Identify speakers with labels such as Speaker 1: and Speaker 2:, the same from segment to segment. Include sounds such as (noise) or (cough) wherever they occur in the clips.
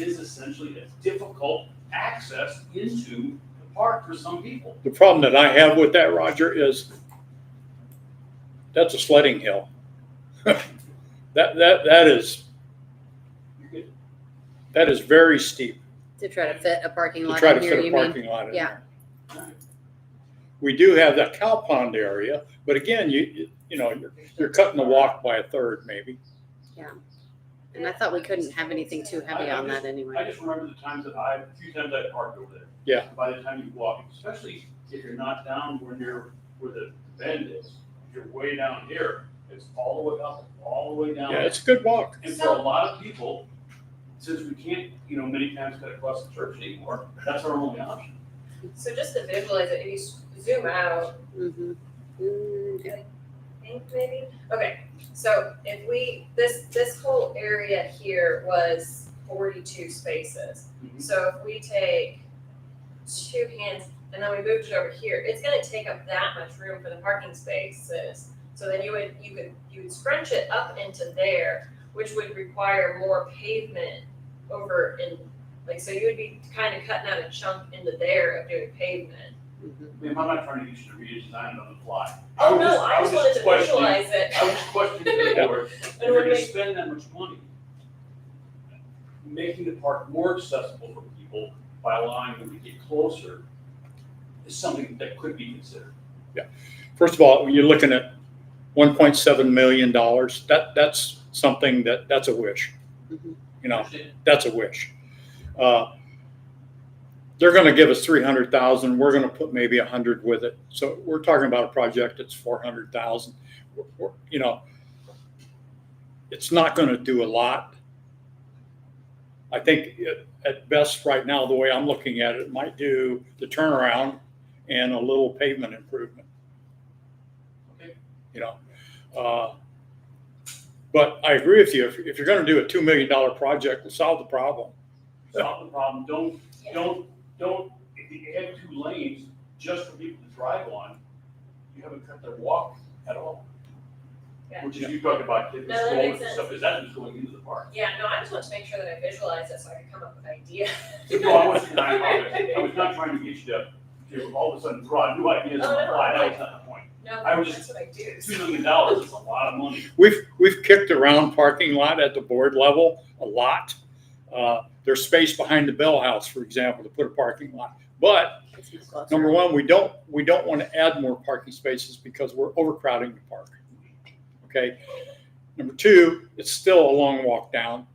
Speaker 1: is essentially a difficult access into the park for some people.
Speaker 2: The problem that I have with that, Roger, is that's a sledding hill. (laughs) That, that, that is,
Speaker 1: You could-
Speaker 2: that is very steep
Speaker 3: To try to fit a parking
Speaker 2: to
Speaker 3: lot
Speaker 2: try to
Speaker 3: in here,
Speaker 2: fit a
Speaker 3: you mean?
Speaker 2: parking lot in
Speaker 3: Yeah.
Speaker 2: there. We do have that cow pond area, but again, you- you, you know, you're, you're cutting the walk by a third maybe.
Speaker 3: And I thought we couldn't have anything too heavy on that
Speaker 1: I
Speaker 3: anyway.
Speaker 1: just remember the times that I, a few times I parked over there.
Speaker 2: Yeah.
Speaker 1: By the time you walk, especially if you're not down where near, where the bend is, if you're way down here, it's all the way up, all the way down.
Speaker 2: Yeah, it's a good walk.
Speaker 1: And for a lot of people, since we can't, you know, many times cut across the church anymore, that's our only option.
Speaker 4: So just to visualize it, if you s- zoom out,
Speaker 3: Mhm. Mm, yeah.
Speaker 4: I think maybe, okay, so if we, this, this whole area here was forty-two spaces.
Speaker 1: Mhm.
Speaker 4: So if we take two hands and then we moved it over here, it's gonna take up that much room for the parking spaces. So then you would, you could, you would scrunch it up into there, which would require more pavement over in, like, so you would be kind of cutting out a chunk into there of doing pavement.
Speaker 3: Mhm.
Speaker 1: I mean, I'm not trying to get you to redesign it on the fly.
Speaker 4: Oh,
Speaker 1: was
Speaker 4: no, I
Speaker 1: was
Speaker 4: just wanted to
Speaker 1: questioning-
Speaker 4: visualize it.
Speaker 1: I was just questioning the
Speaker 2: Yeah.
Speaker 1: board, if
Speaker 4: (laughs) And
Speaker 1: you're
Speaker 4: we're
Speaker 1: gonna
Speaker 4: making,
Speaker 1: spend that much money, making the park more accessible for people by allowing them to get closer is something that could be considered.
Speaker 2: First of all, when you're looking at one point seven million dollars, that, that's something that, that's a wish.
Speaker 3: Mhm.
Speaker 2: You know, that's a wish. Uh, They're gonna give us three hundred thousand, we're gonna put maybe a hundred with it, so we're talking about a project that's four hundred thousand. You know, it's not gonna do a lot. I think it- at best, right now, the way I'm looking at it, it might do the turnaround and a little pavement improvement.
Speaker 1: Okay.
Speaker 2: You know, uh, but I agree with you, if, if you're gonna do a two million dollar project and solve the problem,
Speaker 1: Solve the problem, don't
Speaker 4: yeah,
Speaker 1: Don't, don't, if you add two lanes just for people to drive on, you haven't cut their walk at all.
Speaker 4: Yeah.
Speaker 1: Which is, you talked about kids
Speaker 4: No, that
Speaker 1: going
Speaker 4: makes
Speaker 1: and
Speaker 4: sense.
Speaker 1: stuff, because that was going into the park.
Speaker 4: yeah, no, I just want to make sure that I visualize it so I can come up with ideas.
Speaker 1: No, I was not,
Speaker 4: (laughs)
Speaker 1: I was not trying to get you to, to all of a sudden draw new ideas on the
Speaker 4: Oh, no,
Speaker 1: fly, that
Speaker 4: I-
Speaker 1: was not the point.
Speaker 4: No,
Speaker 1: I was
Speaker 4: that's what I do.
Speaker 1: Two million dollars is a lot of money.
Speaker 2: We've, we've kicked around parking lot at the board level a lot. Uh, There's space behind the Bell House, for example, to put a parking lot. But
Speaker 3: That's much closer.
Speaker 2: number one, we don't, we don't want to add more parking spaces because we're overcrowding the park. Okay? Number two, it's still a long walk down.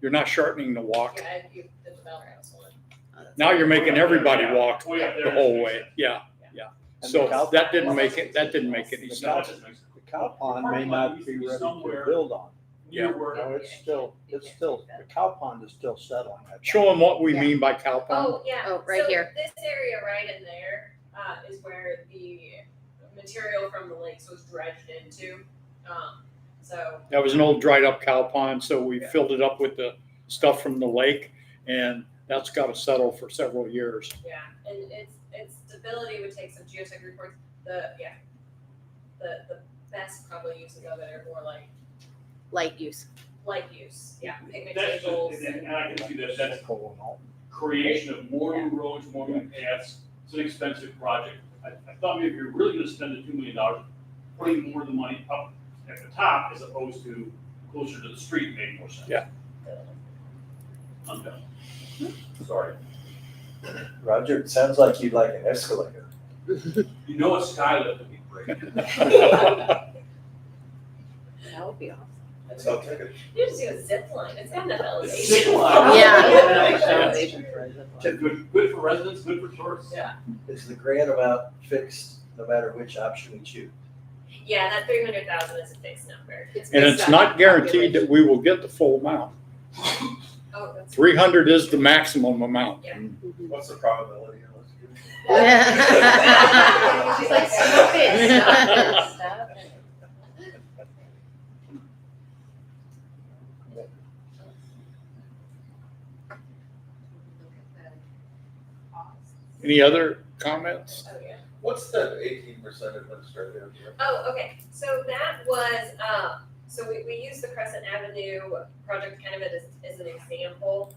Speaker 2: You're not shortening the walk.
Speaker 4: Yeah, you did the bell rouse one.
Speaker 3: Oh, that's-
Speaker 2: Now you're making everybody walk
Speaker 1: Way up there.
Speaker 2: the whole way. Yeah, yeah. So that didn't make it, that didn't make any
Speaker 1: It's not
Speaker 2: sense.
Speaker 1: just makes-
Speaker 5: The cow pond may not be ready to build on.
Speaker 1: Near
Speaker 5: You
Speaker 1: where,
Speaker 5: know, it's still, it's still, the cow pond is still settling. I think.
Speaker 2: Show them what we mean by cow pond.
Speaker 4: Oh, yeah.
Speaker 3: Oh, right
Speaker 4: So
Speaker 3: here.
Speaker 4: This area right in there, uh, is where the material from the lakes was dredged into. Um, so,
Speaker 2: That was an old dried up cow pond, so we filled it up with the stuff from the lake and that's got to settle for several
Speaker 4: (laughs)
Speaker 2: years.
Speaker 4: yeah, and its, its stability would take some geotech reports. The, yeah. The, the best probably uses of it are more like
Speaker 3: Light use.
Speaker 4: light use, yeah, picnic
Speaker 1: that's,
Speaker 4: tables
Speaker 1: just-
Speaker 4: and.
Speaker 1: and I can see that, that's
Speaker 5: Cool and all.
Speaker 1: creation of more new roads, more new paths, it's an expensive project. I, I thought maybe you're really gonna spend the two million dollars, putting more of the money up at the top as opposed to closer to the street made more sense.
Speaker 2: Yeah.
Speaker 1: I'm done. Sorry.
Speaker 6: Roger, it sounds like you'd like an escalator.
Speaker 1: You know a skylift would be great.
Speaker 3: That would be awesome.
Speaker 6: That's how take it.
Speaker 4: You just do a zip line, it's
Speaker 1: (laughs)
Speaker 4: got enough elevation.
Speaker 1: Zip
Speaker 4: (laughs)
Speaker 1: line.
Speaker 3: Yeah.
Speaker 1: Good, good for residents, good for tourists.
Speaker 4: Yeah.
Speaker 6: Is the grant amount fixed no matter which option we choose?
Speaker 4: Yeah, that three hundred thousand is a fixed number.
Speaker 2: And it's not guaranteed that we will get the full amount.
Speaker 4: Oh, that's.
Speaker 2: Three hundred is the maximum amount.
Speaker 6: What's the probability of us getting
Speaker 4: (laughs)
Speaker 6: it?
Speaker 4: She's like, stop it, stop it, stop it.
Speaker 2: Any other comments?
Speaker 4: Oh, yeah.
Speaker 7: What's the eighteen percent administrative?
Speaker 4: Oh, okay, so that was, uh, So we, we use the Crescent Avenue project kind of as, as an example.